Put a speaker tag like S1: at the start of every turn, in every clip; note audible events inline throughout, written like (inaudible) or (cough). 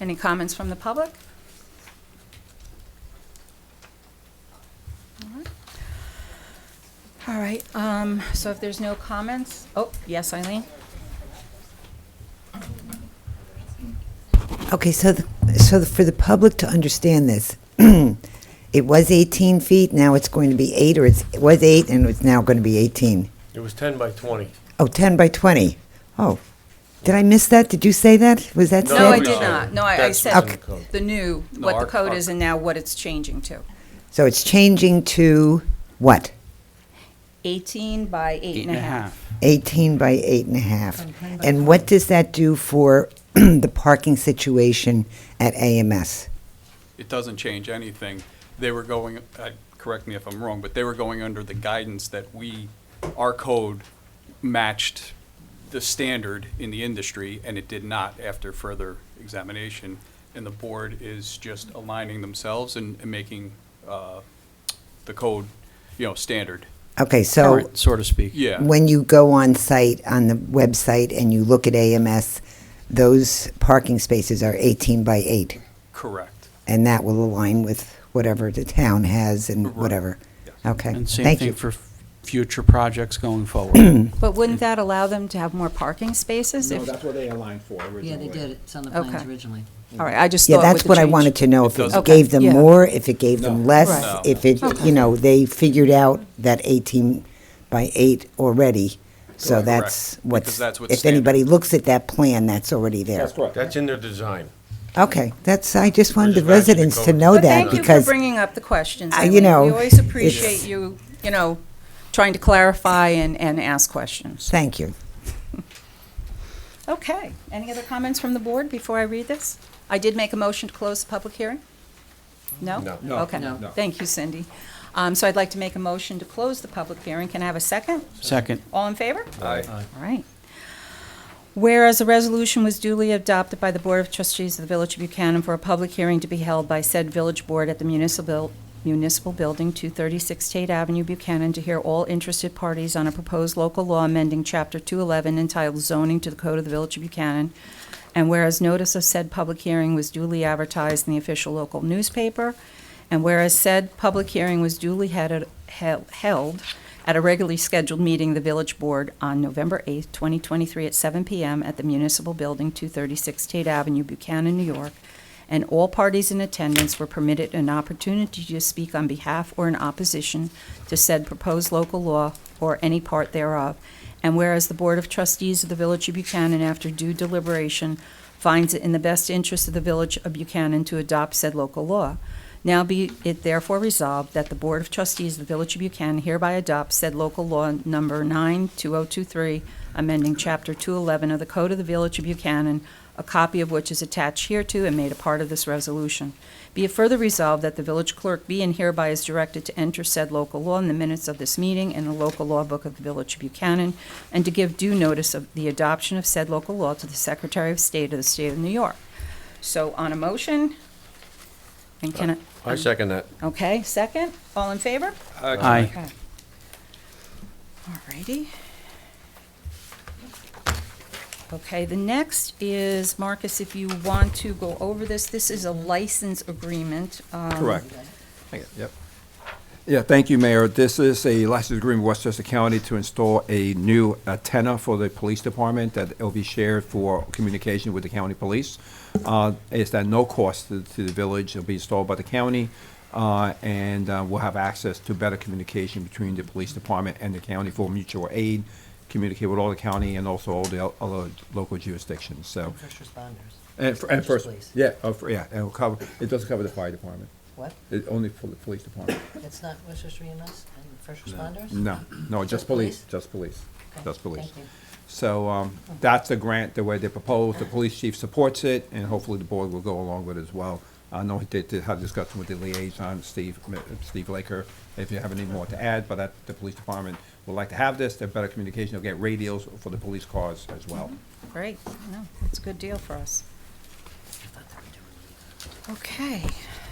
S1: Any comments from the public? All right, um, so if there's no comments, oh, yes, Eileen?
S2: Okay, so, the- so the- for the public to understand this, (clears throat) it was 18 feet, now it's going to be eight, or it's, it was eight and it's now going to be 18?
S3: It was 10 by 20.
S2: Oh, 10 by 20. Oh, did I miss that? Did you say that? Was that said?
S1: No, I
S3: No,
S1: did
S3: no.
S1: not. No, I I
S3: That's
S1: said
S3: what's in the code.
S1: the new,
S4: No,
S1: what the
S4: our-
S1: code
S4: our-
S1: is and now what it's changing to.
S2: So it's changing to what?
S1: 18 by eight and a half.
S2: 18 by eight and a half. And what does that do for (clears throat) the parking situation at AMS?
S4: It doesn't change anything. They were going, uh, correct me if I'm wrong, but they were going under the guidance that we, our code matched the standard in the industry, and it did not after further examination. And the board is just aligning themselves and and making uh, the code, you know, standard.
S2: Okay, so
S5: Current, so to speak.
S4: Yeah.
S2: when you go on site, on the website, and you look at AMS, those parking spaces are 18 by 8,
S4: Correct.
S2: and that will align with whatever the town has and
S4: Right.
S2: whatever.
S4: Yes.
S2: Okay,
S5: And same
S2: thank
S5: thing
S2: you.
S5: for f- future projects going
S2: (clears throat)
S5: forward.
S1: But wouldn't that allow them to have more parking spaces?
S6: No,
S1: if-
S6: that's what they aligned for originally.
S7: Yeah, they did. It's on the
S1: Okay.
S7: plans originally.
S1: All right, I just thought
S2: Yeah,
S1: with
S2: that's
S1: the
S2: what I
S1: change-
S2: wanted to know,
S4: It
S2: if it
S4: doesn't-
S2: gave them
S1: Okay, yeah.
S2: more, if it gave them
S6: No.
S1: Right.
S2: less,
S4: No.
S2: if it, you know, they figured out that 18 by 8 already, so
S4: Correct.
S2: that's
S4: Because
S2: what's,
S4: that's what's
S2: if anybody looks at that plan, that's already there.
S6: That's correct.
S3: That's in their design.
S2: Okay, that's, I just wanted the
S3: Just matching the
S2: residents to
S3: code.
S2: know
S1: But
S2: that,
S1: thank you for
S2: because
S1: bringing up the questions.
S2: I-
S1: Eileen.
S2: you know,
S1: We always
S2: it's-
S1: appreciate you, you know, trying to clarify and, and ask questions.
S2: Thank you.
S1: Okay, any other comments from the board before I read this? I did make a motion to close the public hearing? No?
S3: No.
S6: No,
S1: Okay,
S7: no.
S1: thank you, Cindy. Um, So I'd like to make a motion to close the public hearing. Can I have a second?
S5: Second,
S1: All in favor?
S3: Aye.
S1: All right. Whereas a resolution was duly adopted by the Board of Trustees of the Village of Buchanan for a public hearing to be held by said village board at the municipal, municipal building, 236 State Avenue, Buchanan, to hear all interested parties on a proposed local law amending Chapter 211 entitled zoning to the code of the Village of Buchanan. And whereas notice of said public hearing was duly advertised in the official local newspaper, and whereas said public hearing was duly headed- hel- held at a regularly scheduled meeting of the Village Board on November 8th, 2023, at 7 p.m. at the Municipal Building, 236 Tate Avenue, Buchanan, New York, and all parties in attendance were permitted an opportunity to speak on behalf or in opposition to said proposed local law or any part thereof. And whereas the Board of Trustees of the Village of Buchanan, after due deliberation, finds it in the best interest of the Village of Buchanan to adopt said local law. Now be it therefore resolved that the Board of Trustees of the Village of Buchanan hereby adopts said local law number 92023, amending Chapter 211 of the Code of the Village of Buchanan, a copy of which is attached hereto and made a part of this resolution. Be it further resolved that the village clerk be and hereby is directed to enter said local law in the minutes of this meeting in the local law book of the Village of Buchanan, and to give due notice of the adoption of said local law to the Secretary of State of the State of New York. So on a motion, and can I?
S3: I second that.
S1: Okay, second, all in favor?
S5: aye.
S1: Okay. Alrighty. Okay, the next is, Marcus, if you want to go over this, this is a license agreement. um,
S8: Correct. Yep. Yeah, thank you, Mayor. This is a license agreement with Westchester County to install a new antenna for the police department that will be shared for communication with the county police. Uh, It's at no cost to to the village. It'll be installed by the county, uh, and uh, we'll have access to better communication between the police department and the county for mutual aid, communicate with all the county and also all the other local jurisdictions, so.
S7: First responders.
S8: And fir- and
S7: Just
S8: first,
S7: police.
S8: yeah, uh, fir- yeah, and it'll cover, it doesn't cover the fire department.
S7: What?
S8: It only for the police department.
S7: It's not Westchester EMS and first responders?
S8: No, no, just
S7: Just
S8: police,
S7: police?
S8: just police,
S7: Okay,
S8: just police.
S7: Thank you.
S8: So um, that's the grant, the way they proposed, the police chief supports it, and hopefully the board will go along with it as well. I know he did did have discussion with the liaison, Steve, uh, Steve Laker, if you have any more to add, but that, the police department would like to have this, they're better communication, they'll get radios for the police cars as well.
S1: Great, no, it's a good deal for us. Okay,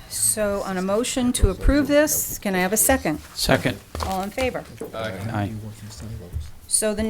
S1: so on a motion to approve this, can I have a second?
S5: Second,
S1: All in favor?
S4: Aye.
S5: aye.
S1: So the